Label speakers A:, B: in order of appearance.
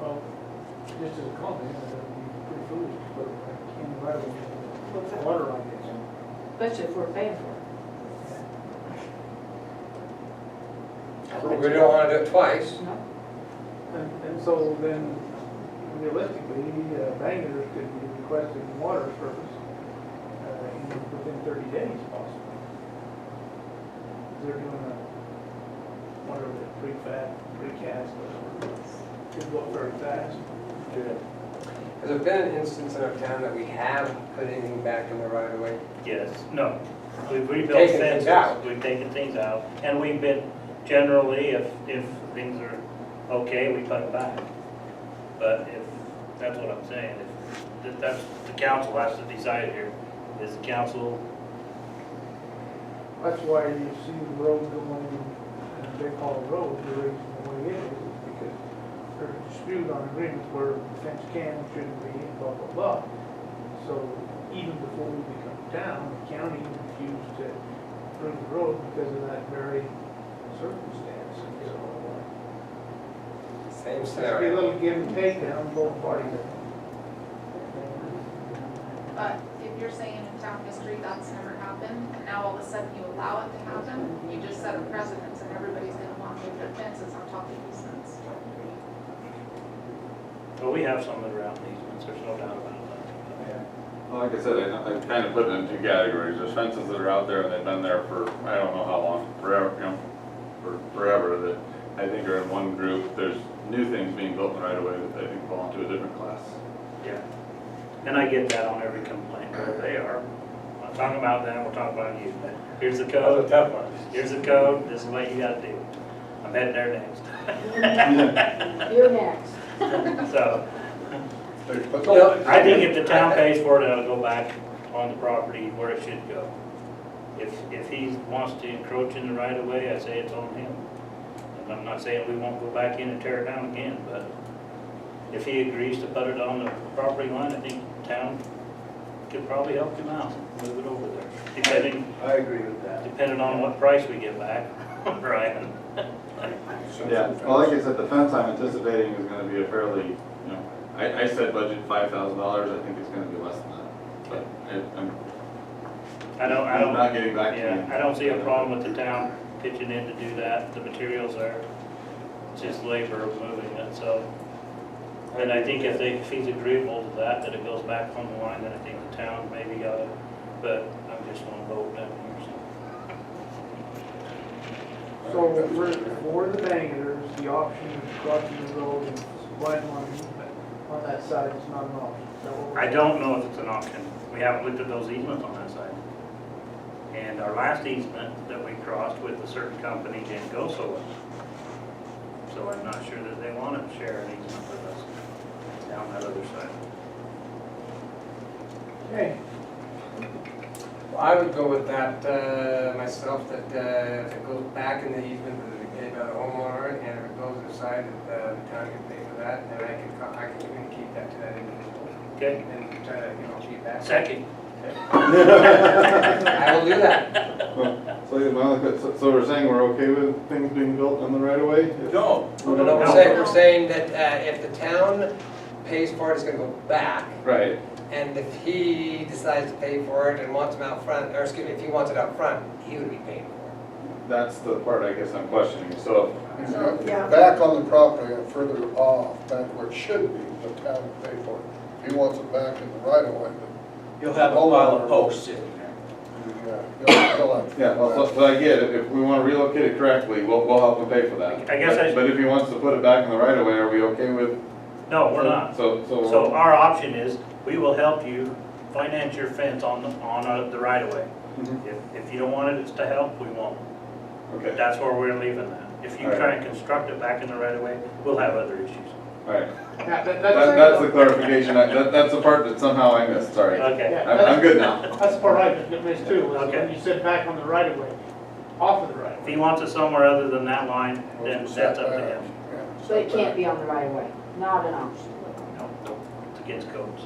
A: Well, just as a comment, uh, it'd be pretty foolish to put a can of water in water like this.
B: Especially if we're paying for
C: So We don't wanna do it twice.
B: it, no?
A: And, and so then realistically, uh, Bangor could be requesting water service uh, in- within thirty days possibly. They're doing a, whatever, the prefab, precast, whatever, could go very fast.
C: Has there been an instance in our town that we have put anything back in the right of way?
D: Yes, no. We've rebuilt
C: Taken things
D: fences,
C: out.
D: we've taken things out, and we've been, generally, if, if things are okay, we put it back. But if, that's what I'm saying, if, that- that's, the council has to decide here, is the council,
A: That's why you see the road going, and they call it road, the reason why it is, is because they're disputed on agreements where the fence can and shouldn't be, and blah, blah, blah. So even before we become town, the county refused to approve the road because of that very circumstance. So uh,
C: Same
A: it's gonna be a
C: scenario.
A: little give and take down both parties.
E: But if you're saying in town history that's never happened, and now all of a sudden you allow it to happen, you just set a precedence and everybody's gonna want to move their fences on top of easements.
D: well, we have some that are out in easements, there's no doubt about that.
F: Well, Like I said, I, I kind of put it in two categories, there's fences that are out there and they've been there for, I don't know how long, forever, you know, for, forever, that I think are in one group, there's new things being built in right away that I think fall into a different class.
D: Yeah. And I get that on every complaint, where they are. I'm not talking about them, we're talking about you, but here's the code.
C: tough one.
D: Here's the code, this is what you gotta do. I'm heading there next.
B: You're next.
D: So,
C: Well,
D: I think if the town pays for it, it'll go back on the property where it should go. If, if he wants to encroach in the right of way, I say it's on him. And I'm not saying we won't go back in and tear it down again, but if he agrees to put it on the property line, I think town could probably help him out, move it over there. Depending,
G: I agree with that.
D: depending on what price we get back, Brian.
F: Yeah, well, like I said, the fence I'm anticipating is gonna be a fairly, you know, I, I said budget five thousand dollars, I think it's gonna be less than that. But I, I'm
D: I don't, I don't.
F: I'm not getting back to you.
D: Yeah, I don't see a problem with the town pitching in to do that, the materials are, it's just labor of moving it, so. And I think if they, if he's agreeable to that, that it goes back on the line, then I think the town maybe got it, but I'm just gonna vote down here, so.
A: So for, for the Bangors, the option of crossing the road and supplying money but on that side is not an option. Is that what we're-
D: I don't know if it's an option, we haven't looked at those easements on that side. And our last easement that we crossed with a certain company didn't go so well. So I'm not sure that they wanna share an easement with us down that other side.
A: Okay.
C: I would go with that, uh, myself, that, uh, if it goes back in the easement, that it gave out a homeowner, and if it goes inside, that uh, the town can pay for that, then I can, co- I can communicate that to that individual.
D: Okay,
C: And try to, you know, achieve that.
D: second.
C: I will do that.
F: Well, So, yeah, well, like I said, so we're saying we're okay with things being built on the right of way?
G: No.
C: No, no, we're
D: No.
C: saying, we're saying that, uh, if the town pays for it, it's gonna go back,
F: Right,
C: and if he decides to pay for it and wants him out front, or excuse me, if he wants it out front, he would be paying for it.
F: that's the part I guess I'm questioning, so
H: No, Back on the property and further off, back where it should be, the town would pay for it. If he wants it back in the right of way,
G: You'll have a pile of posts sitting there.
H: then, yeah, he'll- he'll have to.
F: Yeah, well, so, so I get it, if we wanna relocate it correctly, we'll, we'll help him pay for that.
D: I guess I-
F: But if he wants to put it back in the right of way, are we okay with?
D: No, we're not.
F: So,
D: So
F: so,
D: our option is, we will help you finance your fence on, the on uh, the right of way.
F: Mhm.
D: If, if you don't want it, it's to help, we won't. But
F: okay,
D: That's where we're leaving that. If you try and construct it back in the right of way, we'll have other issues.
F: alright.
A: That, that-
F: That, that's the
A: that's,
F: clarification, I- that, that's the part that somehow I missed, sorry. I'm,
D: Okay,
F: I'm good now.
A: that's the part I missed too, was when
D: Okay.
A: you said back on the right of way, off of the right of
D: if
A: way.
D: he wants it somewhere other than that line, then that's up to him.
H: Yeah,
B: So it
H: setback.
B: can't be on the right of way, not an option.
D: No, no, it's against code, so.